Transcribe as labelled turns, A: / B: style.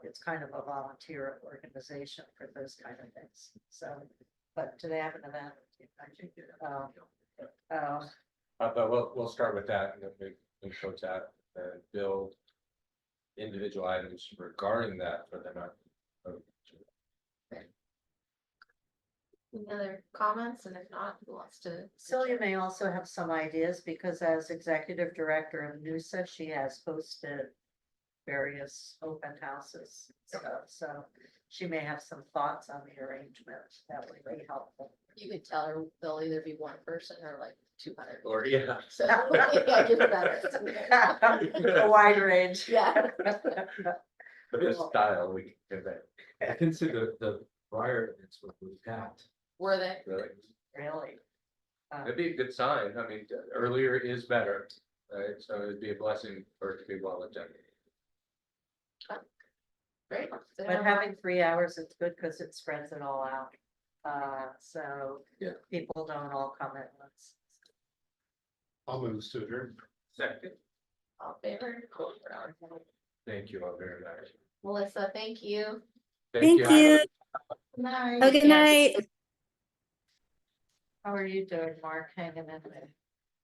A: it's kind of a volunteer organization for those kind of things, so. But do they have an event? I think, um, uh,
B: Uh, but we'll, we'll start with that, and then we, we show that, and build individual items regarding that for the month.
C: Any other comments? And if not, who wants to?
A: Celia may also have some ideas, because as executive director of NUSA, she has hosted various open houses, so, so she may have some thoughts on the arrangement that would be helpful.
C: You could tell her they'll either be one person or like two hundred.
B: Or, yeah.
C: So, yeah, give better.
A: A wide range.
C: Yeah,
B: But this style we can convey,
D: I consider the prior events were without.
C: were they?
B: really.
A: Really? Um,
B: It'd be a good sign. I mean, earlier is better, right? So it'd be a blessing for it to be well attended.
C: Great. So
A: But
C: now-
A: having three hours is good because it spreads it all out. Uh, so.
B: Yeah.
A: People don't all come at once.
D: I'll move to adjourn.
B: Second.
C: All in favor? Cool. We're out.
B: Thank you all very much.
C: Melissa, thank you.
E: Thank you.
C: Night.
E: Have a good night.
A: How are you doing, Mark? Hanging in there?